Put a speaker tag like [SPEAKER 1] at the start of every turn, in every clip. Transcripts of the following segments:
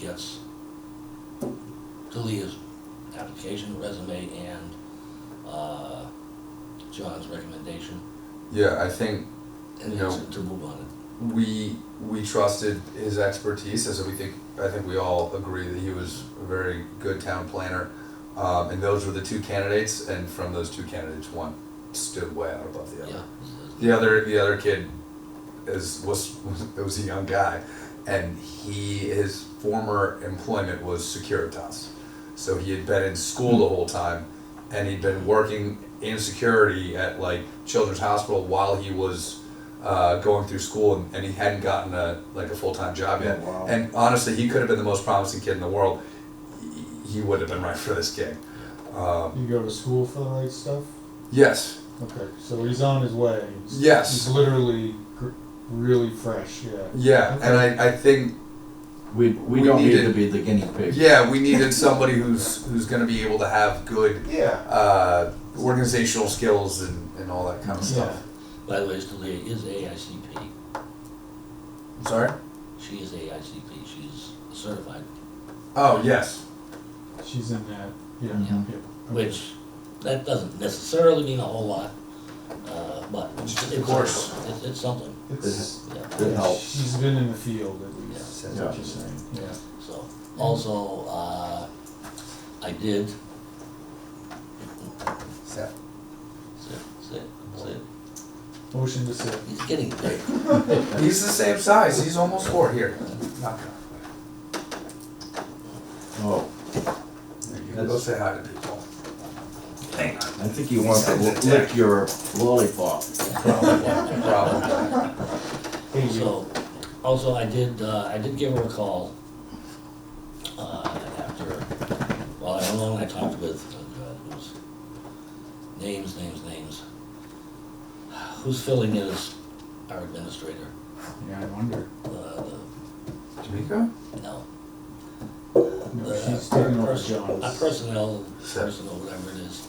[SPEAKER 1] gets to Leah's application, resume, and, uh, John's recommendation,
[SPEAKER 2] Yeah, I think
[SPEAKER 1] and
[SPEAKER 2] No.
[SPEAKER 1] to- to move on it.
[SPEAKER 2] we we trusted his expertise, and so we think I think we all agree that he was a very good town planner. Um, and those were the two candidates, and from those two candidates, one stood way out above the other.
[SPEAKER 1] Yeah.
[SPEAKER 2] The other the other kid is was, was it was a young guy, and he his former employment was Securitas, so he had been in school the whole time, and he'd been working in security at like Children's Hospital while he was uh, going through school, and, and he hadn't gotten a like a full time job yet.
[SPEAKER 3] Oh, wow.
[SPEAKER 2] And honestly, he could have been the most promising kid in the world. He- He would have been right for this gig. Um,
[SPEAKER 3] You go to school for the right stuff?
[SPEAKER 2] yes,
[SPEAKER 3] Okay, so he's on his way. He's-
[SPEAKER 2] Yes.
[SPEAKER 3] He's literally gr- really fresh, yeah.
[SPEAKER 2] yeah, and I, I think
[SPEAKER 4] We, we
[SPEAKER 2] We
[SPEAKER 4] don't need
[SPEAKER 2] needed-
[SPEAKER 4] to be the guinea pig.
[SPEAKER 2] Yeah, we needed somebody who's who's going to be able to have good
[SPEAKER 3] Yeah.
[SPEAKER 2] uh, organizational skills and, and all that kind of
[SPEAKER 3] Yeah.
[SPEAKER 2] stuff.
[SPEAKER 1] By the way, Leah is AICP,
[SPEAKER 2] I'm sorry.
[SPEAKER 1] she is AICP, she's certified,
[SPEAKER 2] Oh yes.
[SPEAKER 3] She's in that, yeah.
[SPEAKER 4] Mhm.
[SPEAKER 3] yeah, okay.
[SPEAKER 1] which, that doesn't necessarily mean a whole lot, uh, but it's,
[SPEAKER 2] Of course.
[SPEAKER 1] it's, it's something,
[SPEAKER 3] It's,
[SPEAKER 1] yeah.
[SPEAKER 4] It helps.
[SPEAKER 3] she's been in the field at
[SPEAKER 1] Yeah.
[SPEAKER 3] least,
[SPEAKER 4] Yeah.
[SPEAKER 3] that's what you're saying, yeah.
[SPEAKER 1] So, also, uh, I did,
[SPEAKER 2] So-
[SPEAKER 1] sit, sit, sit,
[SPEAKER 3] Motion to sit.
[SPEAKER 1] he's getting big.
[SPEAKER 2] He's the same size. He's almost four here. Knock.
[SPEAKER 4] Oh,
[SPEAKER 2] You can go say hi to people. Hang on.
[SPEAKER 4] I think you want to
[SPEAKER 2] Send
[SPEAKER 4] lick
[SPEAKER 2] it back.
[SPEAKER 4] your lollipop.
[SPEAKER 2] Problem. Problem.
[SPEAKER 3] Hey, you,
[SPEAKER 1] So, also, I did, uh, I did give her a call, uh, after, well, I don't know when I talked with, uh, it was names, names, names. Who's filling in as our administrator?
[SPEAKER 3] yeah, I wonder.
[SPEAKER 1] Uh,
[SPEAKER 2] Jamaica.
[SPEAKER 1] the- no,
[SPEAKER 3] No,
[SPEAKER 1] the- uh,
[SPEAKER 3] she's taking over
[SPEAKER 1] pers- uh,
[SPEAKER 3] John's.
[SPEAKER 1] personnel,
[SPEAKER 2] Sure.
[SPEAKER 1] personnel, whatever it is.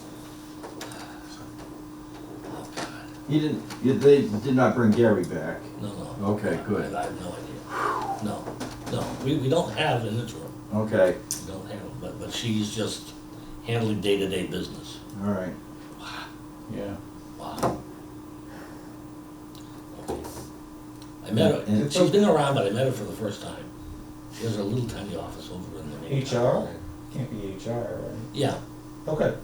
[SPEAKER 1] Oh, God.
[SPEAKER 4] You didn't, you, they did not bring Gary back.
[SPEAKER 1] No, no.
[SPEAKER 4] Okay, good.
[SPEAKER 1] I have no idea. No, no, we, we don't have an interim,
[SPEAKER 4] Okay,
[SPEAKER 1] we don't have, one, but, but she's just handling day-to-day business.
[SPEAKER 4] all right.
[SPEAKER 3] Yeah.
[SPEAKER 1] Wow. Okay. I met
[SPEAKER 4] And-
[SPEAKER 1] her,
[SPEAKER 4] and-
[SPEAKER 1] she's been around, but I met her for the first time. She has her little tiny office over in the. main town.
[SPEAKER 3] HR? Can't be HR, right?
[SPEAKER 1] Yeah,
[SPEAKER 3] Okay.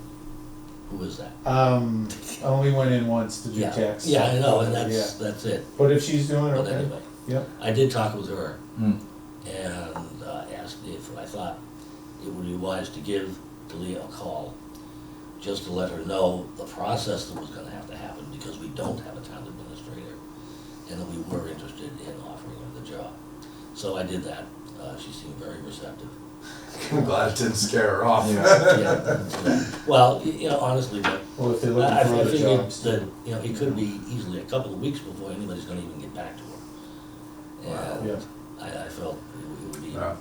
[SPEAKER 1] who is that?
[SPEAKER 3] Um, I only went in once to do
[SPEAKER 1] Yeah.
[SPEAKER 3] tax.
[SPEAKER 1] Yeah, I know, and
[SPEAKER 3] Yeah.
[SPEAKER 1] that's, that's it,
[SPEAKER 3] But if she's doing it,
[SPEAKER 1] but
[SPEAKER 3] okay,
[SPEAKER 1] anyway,
[SPEAKER 3] yeah.
[SPEAKER 1] I did talk with her.
[SPEAKER 4] Hmm.
[SPEAKER 1] and uh, asked if I thought it would be wise to give Delia a call, just to let her know the process that was gonna have to happen, because we don't have a town administrator, and that we were interested in offering her the job. So I did that, uh, she seemed very receptive.
[SPEAKER 2] I'm glad it didn't scare her off.
[SPEAKER 4] Yeah.
[SPEAKER 1] Yeah. Well, y- you know, honestly, but
[SPEAKER 3] Well, if they're looking
[SPEAKER 1] I I
[SPEAKER 3] for other
[SPEAKER 1] figured
[SPEAKER 3] jobs,
[SPEAKER 1] that,
[SPEAKER 3] too.
[SPEAKER 1] you know, it could be easily a couple of weeks before anybody's gonna even get back to her.
[SPEAKER 3] Yeah.
[SPEAKER 1] And I, I felt it would- it would be.
[SPEAKER 2] No.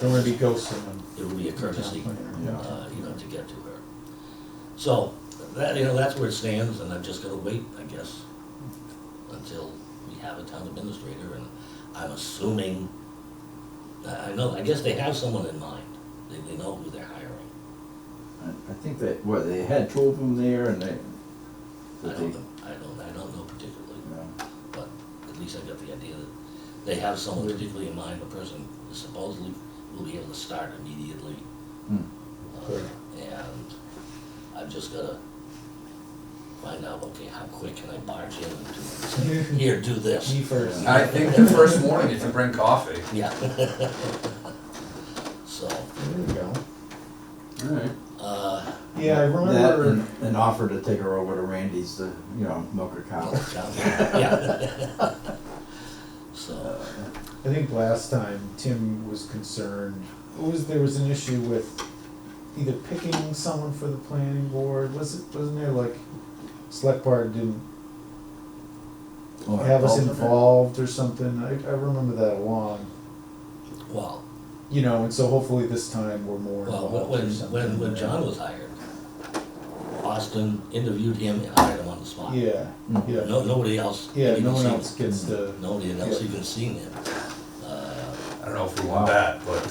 [SPEAKER 3] Don't want to be ghosting them.
[SPEAKER 1] it would be a courtesy,
[SPEAKER 4] Yeah.
[SPEAKER 1] uh, you know, to get to her. So, that, you know, that's where it stands, and I'm just gonna wait, I guess, until we have a town administrator, and I'm assuming, I, I know, I guess they have someone in mind, they, they know who they're hiring.
[SPEAKER 4] I, I think that, what, they had two of them there and they,
[SPEAKER 1] I
[SPEAKER 4] that they,
[SPEAKER 1] don't,
[SPEAKER 4] you
[SPEAKER 1] know- I don't, I don't know particularly,
[SPEAKER 4] know,
[SPEAKER 1] but at least I got the idea that they have someone particularly in mind, the person supposedly will be able to start immediately.
[SPEAKER 4] Hmm.
[SPEAKER 1] Uh, And I've just gotta find out, okay, how quick can I barge in and do it? Here, do this.
[SPEAKER 3] Me first.
[SPEAKER 2] I think the first morning, if you bring coffee.
[SPEAKER 1] Yeah. So,
[SPEAKER 3] There we go.
[SPEAKER 4] all right.
[SPEAKER 1] uh,
[SPEAKER 3] Yeah, I
[SPEAKER 4] That
[SPEAKER 3] remember.
[SPEAKER 4] and an offer to take her over to Randy's to, you know, milk her cow.
[SPEAKER 1] yeah. So,
[SPEAKER 3] I think last time Tim was concerned. It was there was an issue with either picking someone for the planning board. Was it wasn't there like select board didn't
[SPEAKER 4] Well,
[SPEAKER 1] Oh,
[SPEAKER 3] have us
[SPEAKER 4] alternate.
[SPEAKER 3] involved or something? I, I remember that long.
[SPEAKER 1] well,
[SPEAKER 3] You know, and so hopefully this time we're more
[SPEAKER 1] well,
[SPEAKER 3] involved.
[SPEAKER 1] when,
[SPEAKER 3] or
[SPEAKER 1] when- when,
[SPEAKER 3] something.
[SPEAKER 1] when John was hired, Austin interviewed him and hired him on the spot.
[SPEAKER 3] Yeah,
[SPEAKER 4] Mm.
[SPEAKER 3] yeah,
[SPEAKER 1] No, nobody else. had
[SPEAKER 3] yeah.
[SPEAKER 1] even
[SPEAKER 3] No one
[SPEAKER 1] seen
[SPEAKER 3] else
[SPEAKER 1] him.
[SPEAKER 3] gets to.
[SPEAKER 1] Nobody had else
[SPEAKER 3] Yeah.
[SPEAKER 1] even seen him. Uh,
[SPEAKER 2] I don't know if we
[SPEAKER 4] Wow.
[SPEAKER 2] want that, but.